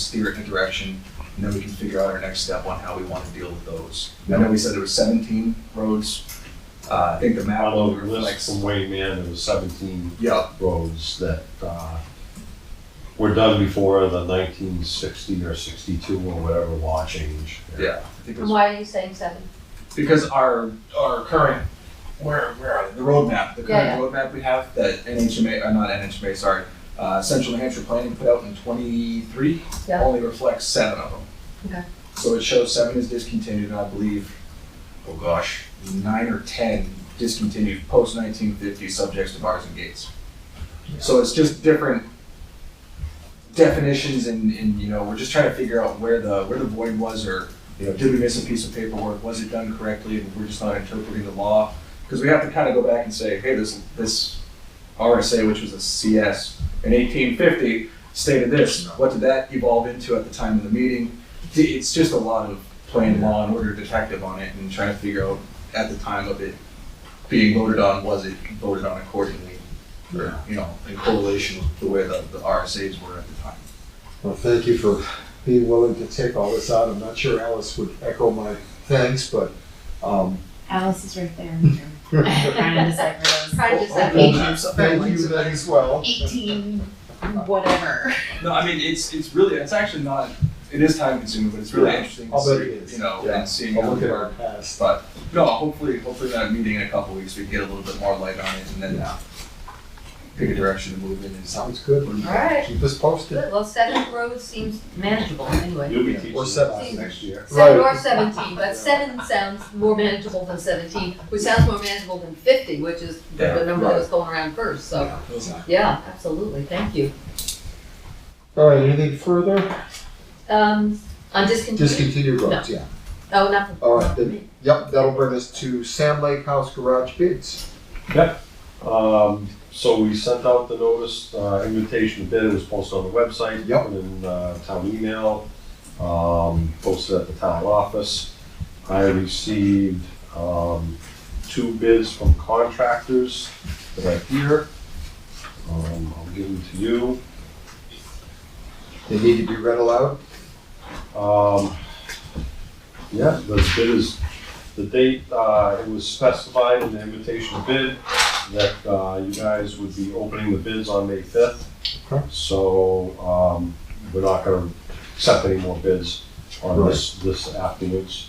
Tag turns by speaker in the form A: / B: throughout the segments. A: spirit and a direction, and then we can figure out our next step on how we want to deal with those. I know we said there were seventeen roads, uh, I think the map
B: Although
A: will
B: the list
A: reflect.
B: from Wayne Man, there was seventeen
A: Yeah,
B: roads that, uh, were done before the nineteen sixty or sixty-two or whatever law change.
A: yeah, I think it
C: And
A: was,
C: why are you saying seven?
A: because our, our current, where, where are they, the roadmap, the
C: Yeah,
A: current roadmap we have that NHMA, uh, not NHMA, sorry, uh, Central New Hampshire Planning put out in twenty-three,
C: Yeah.
A: only reflects seven of them.
C: Okay.
A: So it shows seven is discontinued, and I believe, oh gosh, nine or ten discontinued post nineteen fifty subjects to bars and gates. So it's just different definitions and, and, you know, we're just trying to figure out where the, where the void was or, you know, did we miss a piece of paperwork? Was it done correctly? And we're just not interpreting the law. Cause we have to kind of go back and say, hey, this, this RSA, which was a CS in eighteen fifty, stated this. What did that evolve into at the time of the meeting? D- It's just a lot of playing law and order detective on it and trying to figure out at the time of it being voted on, was it voted on accordingly? Or, you know, in correlation with the way the, the RSAs were at the time.
D: Well, thank you for being willing to take all this out. I'm not sure Alice would echo my thanks, but, um,
E: Alice is right there. in the room. Trying to decipher those.
C: Probably just that
D: Well,
C: page.
D: thank you then as well.
E: Eighteen, whatever.
A: No, I mean, it's, it's really, it's actually not, it is time consuming, but it's really
D: Yeah.
A: interesting to
D: I'll bet
A: see,
D: it is.
A: you know,
D: Yeah.
A: and seeing
D: I'll
A: how
D: look
A: it
D: at our
A: worked.
D: past.
A: But, no, hopefully, hopefully that meeting in a couple weeks, we can get a little bit more light on it and then uh, pick a direction to move in and
D: Sounds good.
C: All right,
D: Keep us posted.
C: good. Well, seven roads seems manageable anyway.
B: You'll be
D: Yeah,
B: teaching
D: or
B: this
D: seven.
B: next year.
C: Seven
D: Right.
C: or seventeen, but seven sounds more manageable than seventeen, which sounds more manageable than fifty, which is
A: Yeah,
C: the number that
D: right.
C: was going around first, so,
A: that.
C: yeah, absolutely, thank you.
D: All right, anything further?
C: Um, on discontinued,
D: Discontinued roads, yeah.
C: oh, not for.
D: All right, then, yep, that'll bring us to Sam Lake House Garage bids.
B: Um, so we sent out the notice, uh, invitation to bid, it was posted on the website.
D: Yep.
B: put In, uh, town email, um, posted at the town office. I received, um, two bids from contractors that are here. Um, I'll give them to you.
D: They need to be read aloud.
B: Um, yeah, the bid is, the date, uh, it was specified in the invitation bid that, uh, you guys would be opening the bids on May fifth.
D: Okay.
B: So, um, we're not gonna accept any more bids on this, this afterwards.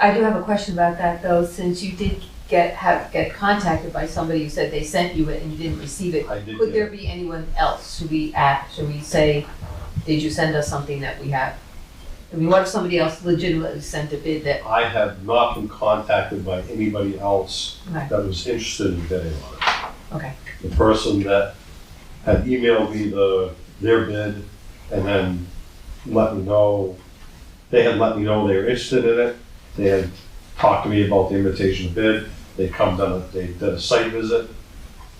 C: I do have a question about that though, since you did get, have, get contacted by somebody who said they sent you it and you didn't receive it.
B: I did
C: Could there
B: get,
C: be anyone else? Should we act, should we say, did you send us something that we have? I mean, what if somebody else legitimately sent a bid that,
B: I have not been contacted by anybody else
C: Okay.
B: that was interested in bidding on it.
C: okay,
B: The person that had emailed me the, their bid and then let me know, they had let me know they were interested in it. They had talked to me about the invitation to bid. They come down, they did a site visit.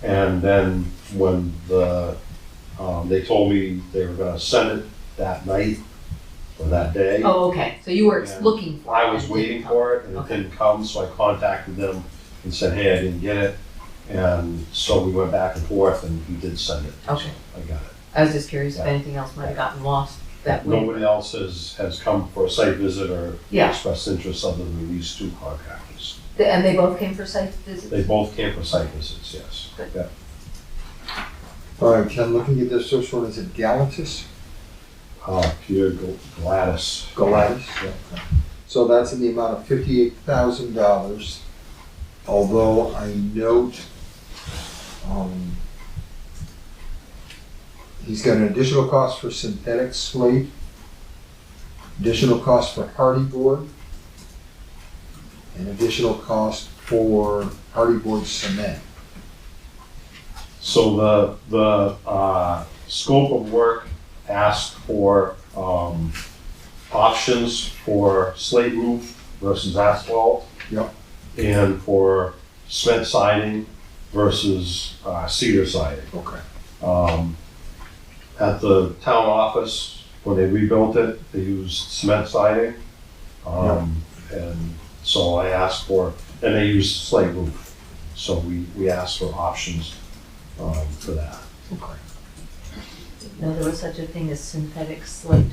B: And then when the, um, they told me they were gonna send it that night or that day.
C: oh, okay, so you were
B: Yeah.
C: looking for it.
B: I was waiting for it and it
C: Okay.
B: didn't come, so I contacted them and said, hey, I didn't get it. And so we went back and forth and he did send it.
C: Okay.
B: I got it.
C: I was just curious if
B: Yeah.
C: anything else might have gotten lost that way.
B: Nobody else has, has come for a site visit or
C: Yeah.
B: expressed interest other than these two contractors.
C: Th- And they both came for site visits?
B: They both came for site visits, yes.
D: All right, Ken, looking at this, first one is it Galantis?
B: Uh, Peter Gl- Gladys.
D: Galatas?
B: Yeah.
D: So that's in the amount of fifty-eight thousand dollars. Although I note, um, he's got an additional cost for synthetic slate, additional cost for hardy board, and additional cost for hardy board cement.
B: So the, the, uh, scope of work asked for, um, options for slate roof versus asphalt.
D: Yep.
B: And for cement siding versus, uh, cedar siding.
D: Okay.
B: Um, at the town office, when they rebuilt it, they used cement siding. Um, and so I asked for, and they used slate roof. So we, we asked for options, um, for that.
D: Okay.
C: No, there was such a thing as synthetic slate.